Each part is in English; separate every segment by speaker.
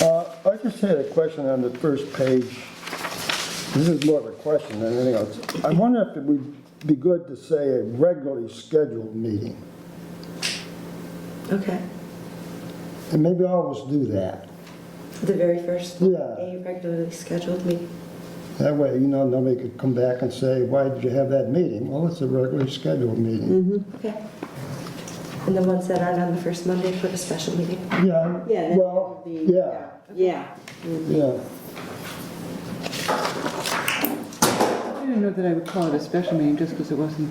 Speaker 1: Uh, I just had a question on the first page. This is more of a question than anything else. I wonder if it would be good to say a regularly scheduled meeting,
Speaker 2: Okay,
Speaker 1: and maybe always do that.
Speaker 2: the very first.
Speaker 1: Yeah.
Speaker 2: A regularly scheduled meeting.
Speaker 1: That way, you know, nobody could come back and say, why did you have that meeting? Well, it's a regularly scheduled
Speaker 3: Mm-hmm.
Speaker 1: meeting.
Speaker 2: Okay. And the ones that aren't on the first Monday, put a special meeting.
Speaker 1: Yeah,
Speaker 3: Yeah, that
Speaker 1: well,
Speaker 3: would be-
Speaker 1: yeah,
Speaker 3: Yeah.
Speaker 1: yeah.
Speaker 4: I don't know that I would call it a special meeting just because it wasn't.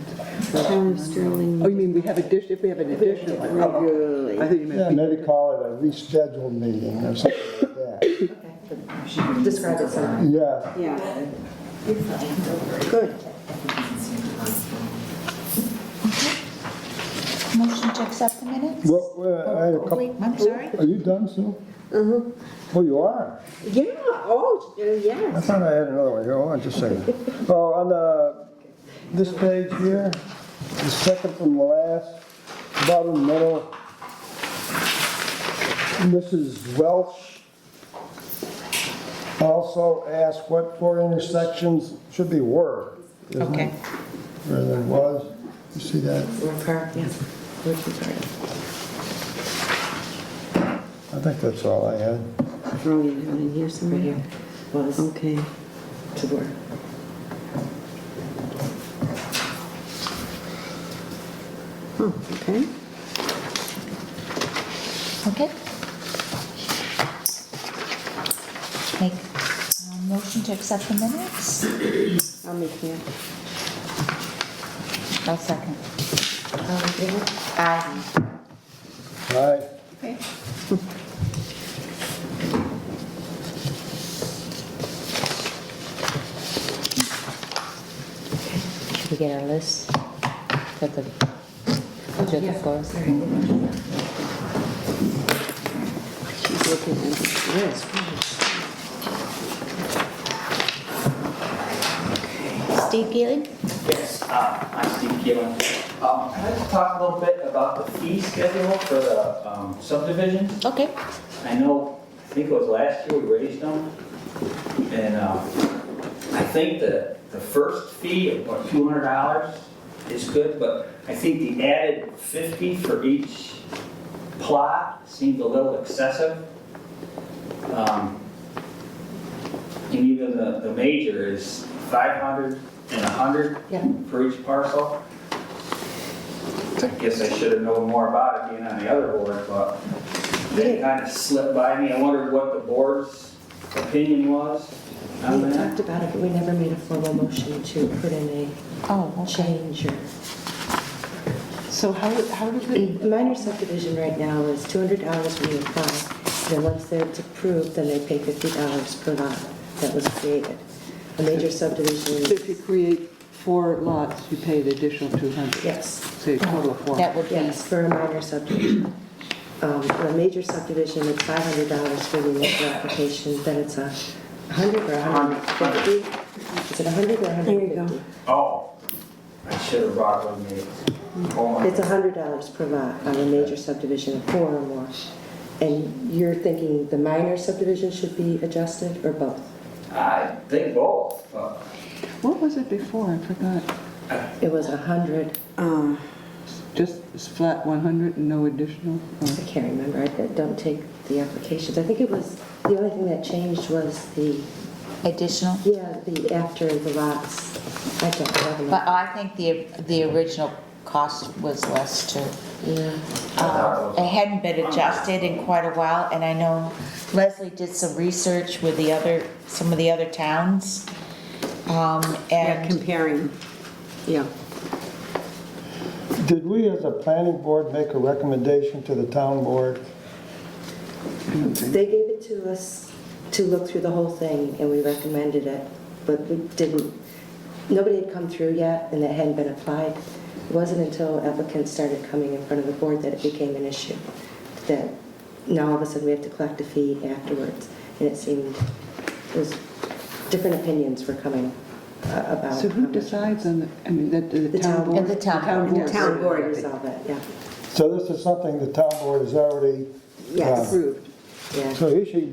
Speaker 3: Town of Sterling.
Speaker 4: Oh, you mean we have addition, if we have an additional.
Speaker 3: Regularly.
Speaker 4: I thought you
Speaker 1: Yeah,
Speaker 4: meant.
Speaker 1: maybe call it a rescheduled meeting or something like that.
Speaker 2: Describe it somehow.
Speaker 1: Yeah,
Speaker 3: Yeah.
Speaker 5: Good.
Speaker 6: Motion to accept the minutes?
Speaker 1: well, well, I had a couple,
Speaker 6: Wait, I'm sorry?
Speaker 1: are you done, Sue? Mm-hmm. Oh, you are?
Speaker 3: Uh-huh. Yeah, oh, uh,
Speaker 1: I
Speaker 3: yes.
Speaker 1: thought I had another one here, hold on just a second. Oh, on the, this page here, the second from the last, bottom middle, Mrs. Welch also asked what four intersections should be were. isn't it?
Speaker 6: Okay.
Speaker 1: Rather than was, you see that?
Speaker 2: Or car, yeah. Working car.
Speaker 1: I think that's all I had.
Speaker 3: Throw you down in here
Speaker 2: Right
Speaker 3: somewhere.
Speaker 2: here. Was
Speaker 3: Okay.
Speaker 2: to work.
Speaker 3: Oh, okay.
Speaker 6: Okay. Make a
Speaker 7: um,
Speaker 6: motion to accept the minutes?
Speaker 3: I'll make that.
Speaker 6: I'll second.
Speaker 2: All in favor?
Speaker 6: Aye.
Speaker 1: All right,
Speaker 6: Okay.
Speaker 7: Should we get our list for the, for the floors?
Speaker 3: She's looking at this list.
Speaker 6: Steve Gillig?
Speaker 8: Yes, uh, I'm Steve Gillen. Um, I'd like to talk a little bit about the fee schedule for the um, subdivisions.
Speaker 6: Okay.
Speaker 8: I know, I think it was last year we raised them, and um, I think the, the first fee of about two hundred dollars is good, but I think the added fifty for each plot seemed a little excessive. Um, And even the, the major is five hundred and a hundred
Speaker 2: Yeah.
Speaker 8: for each parcel. I guess I should have known more about it being on the other board, but they kind of slipped by me. I wondered what the board's opinion was on
Speaker 2: We
Speaker 8: that.
Speaker 2: talked about it, but we never made a formal motion to put in
Speaker 6: Oh,
Speaker 2: a
Speaker 6: okay.
Speaker 2: change or.
Speaker 4: So how, how did we,
Speaker 2: Minor subdivision right now is two hundred dollars when you apply, and then once they're approved, then they pay fifty dollars per lot that was created. A major
Speaker 4: so if
Speaker 2: subdivision,
Speaker 4: you create four lots, you pay the additional 200?
Speaker 2: yes,
Speaker 4: So you total of four.
Speaker 7: That would be,
Speaker 2: yes, for a minor subdivision. Um, for a major subdivision, it's five hundred dollars for the initial application, then it's a hundred or a hundred and fifty? Is it a hundred or a hundred and fifty?
Speaker 8: Oh, I should have brought it with me. Oh, my
Speaker 2: It's a hundred dollars per lot on a major subdivision of four or more. And you're thinking the minor subdivision should be adjusted or both?
Speaker 8: I think both, but
Speaker 4: What was it before? I forgot.
Speaker 2: It was a hundred,
Speaker 3: Uh,
Speaker 4: Just s- flat 100 and no additional? Or-
Speaker 2: I can't remember, I don't take the applications. I think it was, the only thing that changed was the,
Speaker 7: additional,
Speaker 2: yeah, the after the lots. I don't have
Speaker 7: but
Speaker 2: enough.
Speaker 7: I think the, the original cost was less too.
Speaker 2: Yeah,
Speaker 7: Uh, It hadn't been adjusted in quite a while, and I know Leslie did some research with the other, some of the other towns. Um,
Speaker 3: Yeah,
Speaker 7: and
Speaker 3: comparing, yeah.
Speaker 1: did we as a planning board make a recommendation to the town board?
Speaker 2: they gave it to us to look through the whole thing and we recommended it, but we didn't, nobody had come through yet and it hadn't been applied. It wasn't until applicants started coming in front of the board that it became an issue, that now all of a sudden we have to collect a fee afterwards. And it seemed, it was, different opinions were coming uh, about.
Speaker 4: So
Speaker 2: how
Speaker 4: who
Speaker 2: much-
Speaker 4: decides on the, I mean, that, the
Speaker 2: The
Speaker 4: town
Speaker 2: town-
Speaker 4: board?
Speaker 7: the town board.
Speaker 2: The town board resolved that, yeah,
Speaker 1: So this is something the town board has already.
Speaker 2: Yes.
Speaker 1: done.
Speaker 4: Approved.
Speaker 2: yeah.
Speaker 1: So he should